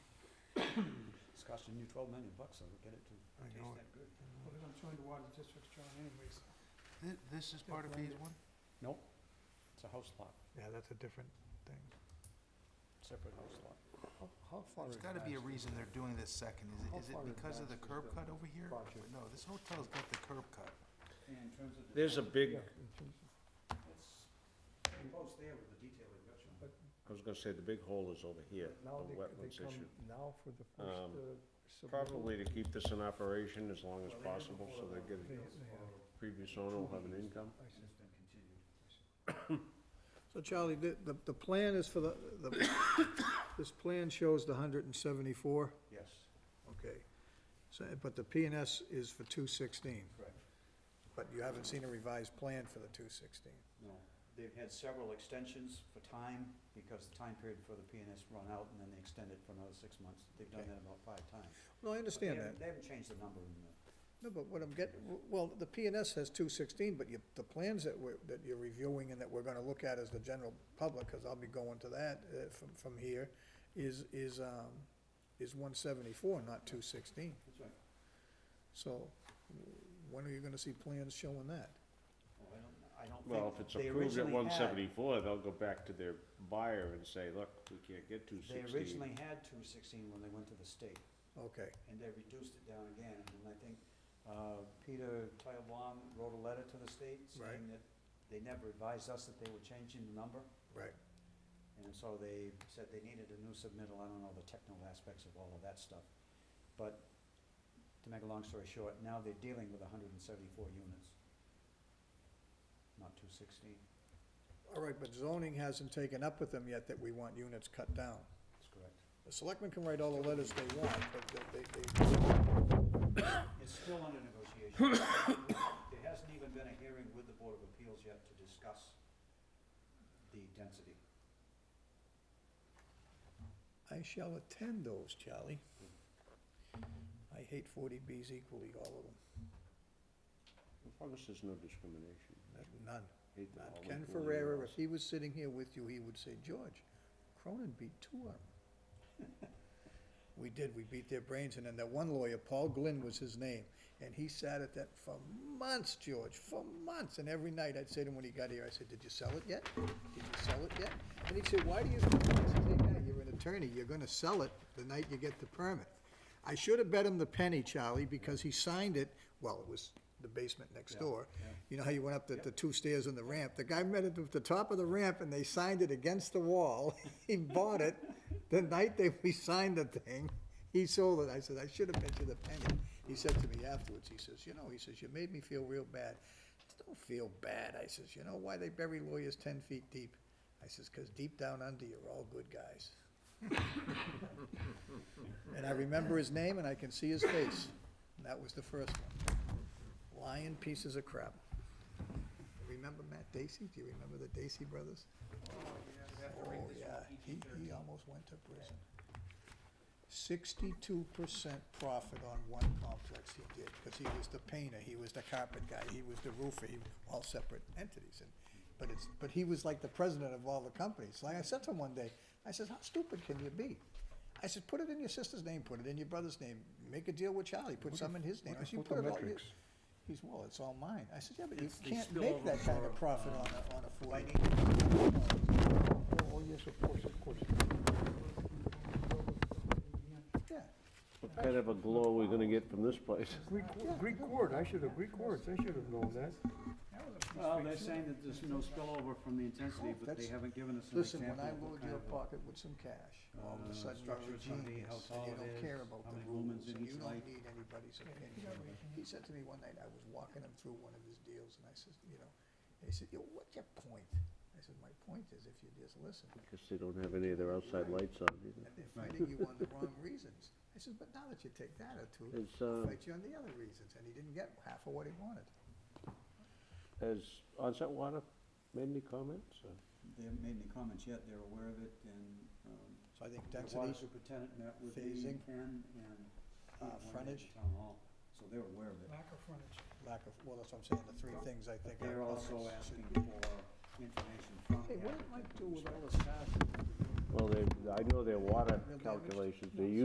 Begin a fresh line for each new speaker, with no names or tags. costing you twelve million bucks, so get it to
I
taste
know
that good.
it.
Well, they're gonna join the water districts, John, anyways.
Thi- This is part of phase one?
Nope, it's a house lot,
Yeah, that's a different thing.
separate house lot.
How- How far
There's gotta be a
advanced is
reason they're doing this second. Is
How
it, is
far
it because of the
advanced is
curb
the
cut over here?
project?
No, this hotel's got the curb cut.
And in terms of. the-
There's a big,
Yeah, in terms of-
It's enclosed there with the detail we've got you.
I was gonna say, the big hole is over here, the
Now they- they
wetlands
come
issue.
Now for the
Um,
first. uh,
Probably to keep this in operation as long as
Well, they did
possible,
before
so
the
they get,
submittal.
It's all-
previous owner will have an income.
I see.
it's been continued.
So Charlie, the, the, the plan is for the, the, this plan shows the hundred and seventy-four,
Yes,
okay. So, but the P and S is for two sixteen,
correct.
but you haven't seen a revised plan for the two sixteen.
No, they've had several extensions for time, because the time period for the PNS run out, and then they extended for another six months. They've done
Okay.
that about five times.
No,
But
I
they
understand that.
haven't- They haven't changed the number in the,
No, but what I'm getting, well, the P and S has two sixteen, but you, the plans that we're, that you're reviewing and that we're gonna look at as the general public, cause I'll be going to that, uh, from, from here, is, is, um, is one seventy-four, not two sixteen.
that's right.
So, when are you gonna see plans showing that?
Well, Oh, I don't, I don't think.
Well, if it's
they
approved at
originally had-
one seventy-four, they'll go back to their buyer and say, look, we can't get two
They
sixteen.
originally had two sixteen when they went to the state,
Okay,
and they reduced it down again, and I think, uh, Peter Teitelbaum wrote a letter to the state saying
Right.
that they never advised us that they were changing the number,
right,
And so they said they needed a new submittal, I don't know the technical aspects of all of that stuff. But to make a long story short, now they're dealing with hundred and seventy-four units, not two sixteen,
all right, but zoning hasn't taken up with them yet that we want units cut down.
that's correct.
The selectmen can write all the letters they want, but they, they, they-
It's still under negotiation. There hasn't even been a hearing with the Board of Appeals yet to discuss the density.
I shall attend those, Charlie. I hate forty Bs equally, all of them,
As long as there's no discrimination.
There's none.
Hate the
Not
whole
Ken
including
Ferrera,
us.
if he was sitting here with you, he would say, George, Cronin beat two of them. We did, we beat their brains, and then that one lawyer, Paul Glynn was his name, and he sat at that for months, George, for months, and every night I'd say to him when he got here, I said, did you sell it yet? Did you sell it yet? And he'd say, why do you, I said, "Hey, Matt, you're an attorney, you're gonna sell it the night you get the permit. I should have bet him the penny, Charlie, because he signed it, well, it was the basement next
Yeah,
door.
yeah.
You know how you went up the, the two stairs and the ramp? The guy met it at the top of the ramp and they signed it against the wall. He bought it. The night they, we signed the thing, he sold it. I said, I should have bet you the penny. He said to me afterwards, he says, you know, he says, you made me feel real bad. I said, don't feel bad. I says, you know why they bury lawyers ten feet deep? I says, cause deep down under, you're all good guys. And I remember his name and I can see his face. And that was the first one. Lying pieces of crap. Remember Matt Dacey? Do you remember the Dacey brothers? Oh, yeah, he, he almost went to prison. Sixty-two percent profit on one complex he did, because he was the painter, he was the carpet guy, he was the roofer, he, all separate entities. And But it's, but he was like the president of all the companies. Like I said to him one day, I says, how stupid can you be? I said, put it in your sister's name, put it in your brother's name, make a deal with Charlie, put some in his name. I said, "You put it all your-"
photometrics?
He's, well, it's all mine. I said, yeah, but you
It's the
can't make that
spillover
kind of
for,
profit
uh,
on a, on a forty.
Oh, oh, yes, of course, of course.
Yeah.
What kind of a glow are we gonna get from this place?
Greek, Greek word, I should have, Greek words, I should have known that.
Well, they're saying that there's no spillover from the intensity, but they
That's-
haven't given us an
Listen,
example
when I
of what
load
kind
your
of a-
pocket with some cash, all
uh,
of a sudden
structure
you're a
it's gonna be,
genius,
how
and you
tall it
don't care
is,
about
how
the
many lumens
rules,
in
and you
each
don't
light.
need anybody's opinion. He said to me one night, I was walking him through one of his deals, and I said, you know, and he said, yo, what's your point? I said, my point is if you just listen,
Because they don't have any of their outside lights on either.
and they're fighting you on the wrong reasons. I said, but now that you take that attitude,
It's,
they'll
uh,
fight you on the other reasons, and he didn't get half of what he wanted.
Has onset water made any comments? or?
They haven't made any comments yet, they're aware of it, and, um,
So I think
the water
density,
superintendent met with me
phasing,
and, and. one day at
uh,
the
frontage.
Town hall, so they're aware of it.
Lack of lack of, well, that's what I'm saying, the three things I think.
But they're
are-
also asking for information from the
Hey, what did
applicant
Mike
with
do with all
respect
this cash?
Well, they, I know their water calculations, they use